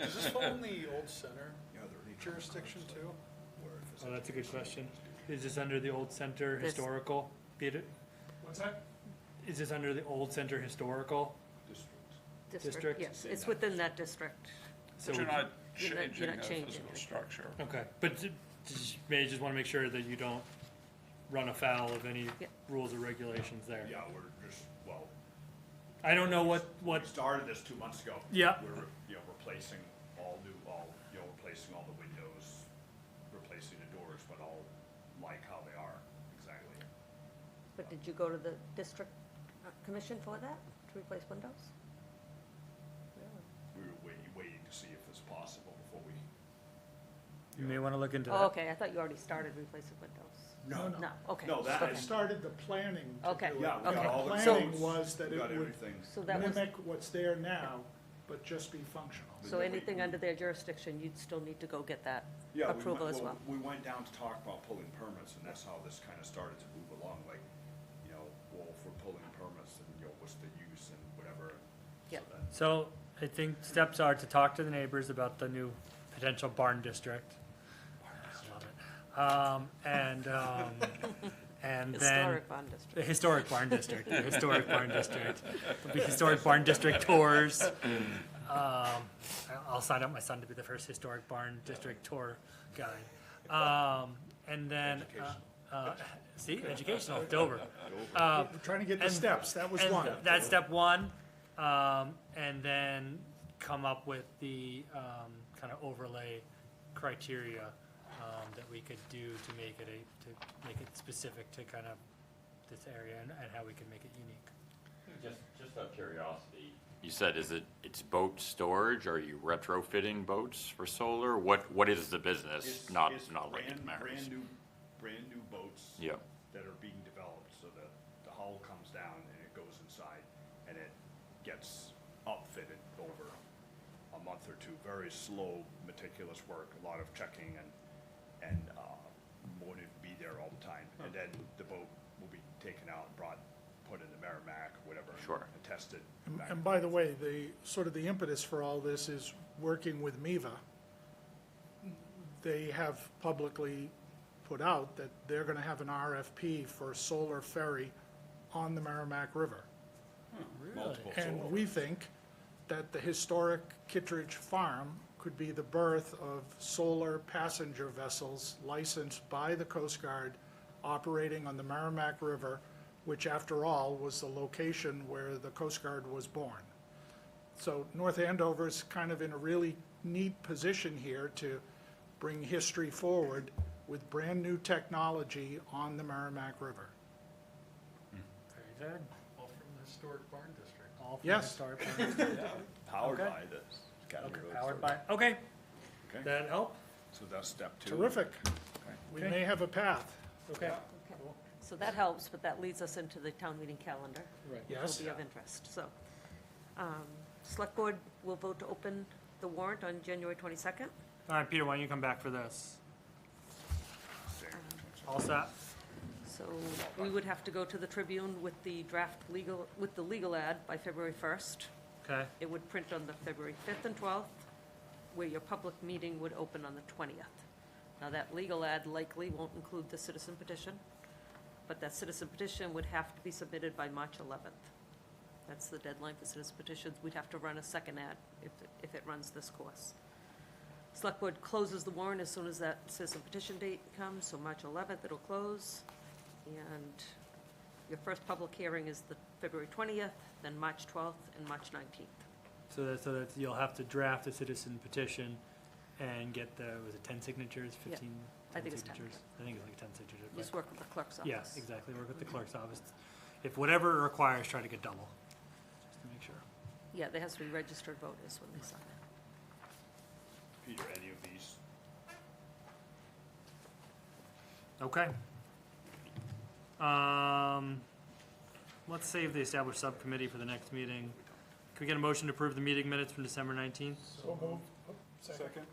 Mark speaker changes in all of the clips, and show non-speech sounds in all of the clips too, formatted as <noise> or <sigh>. Speaker 1: Is this phone the old center jurisdiction too?
Speaker 2: Oh, that's a good question. Is this under the old center
Speaker 3: This-
Speaker 2: historical? Be it-
Speaker 4: What's that?
Speaker 2: Is this under the old center historical? District.
Speaker 3: district, yes, it's within that district.
Speaker 2: So
Speaker 5: But you're
Speaker 2: we-
Speaker 5: not
Speaker 3: You're not- you're
Speaker 5: changing
Speaker 3: not
Speaker 5: the
Speaker 3: changing
Speaker 5: physical
Speaker 3: it.
Speaker 5: structure.
Speaker 2: Okay, but ju- just- may I just wanna make sure that you don't run afoul of any
Speaker 3: Yeah.
Speaker 2: rules or regulations there.
Speaker 4: Yeah, we're just, well,
Speaker 2: I don't know what, what,
Speaker 4: we started this two months ago.
Speaker 2: Yeah.
Speaker 4: We're, you know, replacing all new, all, you know, replacing all the windows, replacing the doors, but all like how they are, exactly.
Speaker 3: But did you go to the district uh, commission for that, to replace windows?
Speaker 4: We were waiting, waiting to see if it's possible before we.
Speaker 2: you may wanna look into
Speaker 3: Oh,
Speaker 2: that.
Speaker 3: okay, I thought you already started replacing windows.
Speaker 4: No,
Speaker 3: No, okay.
Speaker 4: No, that
Speaker 1: I
Speaker 3: okay.
Speaker 4: is-
Speaker 1: started the planning to
Speaker 3: Okay.
Speaker 1: do it.
Speaker 4: Yeah, we got
Speaker 3: Okay.
Speaker 4: all the.
Speaker 3: So-
Speaker 1: Planning was that
Speaker 4: We got
Speaker 1: it would
Speaker 4: everything.
Speaker 3: So that was,
Speaker 1: mimic what's there now, but just be functional.
Speaker 3: so
Speaker 4: we-
Speaker 3: anything under their jurisdiction, you'd still need to go get that
Speaker 4: Yeah, we went-
Speaker 3: approval as well.
Speaker 4: We went down to talk about pulling permits, and that's how this kind of started to move along, like, you know, well, if we're pulling permits, and, you know, what's the use and whatever. so
Speaker 3: Yeah.
Speaker 4: that-
Speaker 2: So I think steps are to talk to the neighbors about the new potential barn district. I love it. Um, and, um,
Speaker 3: <laughs>
Speaker 2: and then
Speaker 3: Historic bond district.
Speaker 2: the historic barn district, the historic barn district, there'll be historic barn district tours. Um, I- I'll sign up my son to be the first historic barn district tour guide. Um, and then, uh, uh, see, educational, Dover. Uh,
Speaker 1: We're trying to get the
Speaker 2: and-
Speaker 1: steps, that was
Speaker 2: and
Speaker 1: one.
Speaker 2: That's step one, um, and then come up with the, um, kind of overlay criteria, um, that we could do to make it a, to make it specific to kind of this area and, and how we can make it unique.
Speaker 6: Just, just out of curiosity. You said, is it, it's boat storage? Are you retrofitting boats for solar? What, what is the business?
Speaker 4: It's-
Speaker 6: Not,
Speaker 4: it's
Speaker 6: not like
Speaker 4: brand-
Speaker 6: it matters.
Speaker 4: Brand new, brand new boats.
Speaker 6: Yeah.
Speaker 4: That are being developed, so that the hull comes down and it goes inside, and it gets upfitted over a month or two, very slow, meticulous work, a lot of checking and, and, uh, wanting to be there all the time, and then the boat will be taken out and brought, put in the Merrimack, whatever.
Speaker 6: Sure.
Speaker 4: And tested.
Speaker 1: And-
Speaker 4: back
Speaker 1: And by the way, the, sort of the impetus for all this is working with Miva. They have publicly put out that they're gonna have an RFP for a solar ferry on the Merrimack River.
Speaker 4: multiple solar.
Speaker 1: And we think that the historic Kittredge Farm could be the birth of solar passenger vessels licensed by the Coast Guard operating on the Merrimack River, which after all was the location where the Coast Guard was born. So North Andover's kind of in a really neat position here to bring history forward with brand-new technology on the Merrimack River.
Speaker 2: Very good. All from the
Speaker 1: Yes.
Speaker 2: historic barn district.
Speaker 4: Powered
Speaker 2: Okay.
Speaker 4: by this.
Speaker 2: All from the historic barn, powered by, okay.
Speaker 4: Okay.
Speaker 2: That help?
Speaker 4: So that's step two.
Speaker 1: Terrific. We may have a path,
Speaker 2: Okay.
Speaker 3: Okay. So that helps, but that leads us into the town meeting calendar.
Speaker 1: yes?
Speaker 3: will be of interest, so. um, Select Board will vote to open the warrant on January 22nd.
Speaker 2: All right, Peter, why don't you come back for this? All set?
Speaker 3: So we would have to go to the Tribune with the draft legal, with the legal ad by February 1st.
Speaker 2: Okay,
Speaker 3: It would print on the February 5th and 12th, where your public meeting would open on the 20th. Now, that legal ad likely won't include the citizen petition, but that citizen petition would have to be submitted by March 11th. That's the deadline for citizen petitions. We'd have to run a second ad if, if it runs this course. Select Board closes the warrant as soon as that citizen petition date comes, so March 11th it'll close. And your first public hearing is the February 20th, then March 12th, and March 19th.
Speaker 2: so that, so that you'll have to draft a citizen petition and get the, was it ten signatures,
Speaker 3: Yeah,
Speaker 2: fifteen?
Speaker 3: I think it's 10.
Speaker 2: signatures? I think it's like ten signatures. but-
Speaker 3: Just work with the clerk's office.
Speaker 2: Yes, exactly, work with the clerk's office. If whatever it requires, try to get double, just to make sure.
Speaker 3: Yeah, there has to be registered voters when they sign it.
Speaker 4: Peter, any of these?
Speaker 2: Okay. Um, let's save the established subcommittee for the next meeting. Can we get a motion to approve the meeting minutes from December nineteenth?
Speaker 1: So moved. Second.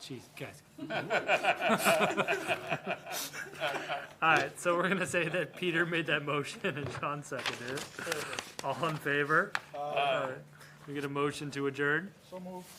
Speaker 2: Jeez, guys. <laughs> All right, so we're gonna say that Peter made that motion and Sean seconded it. All in favor? All right. We get a motion to adjourn?
Speaker 1: So moved.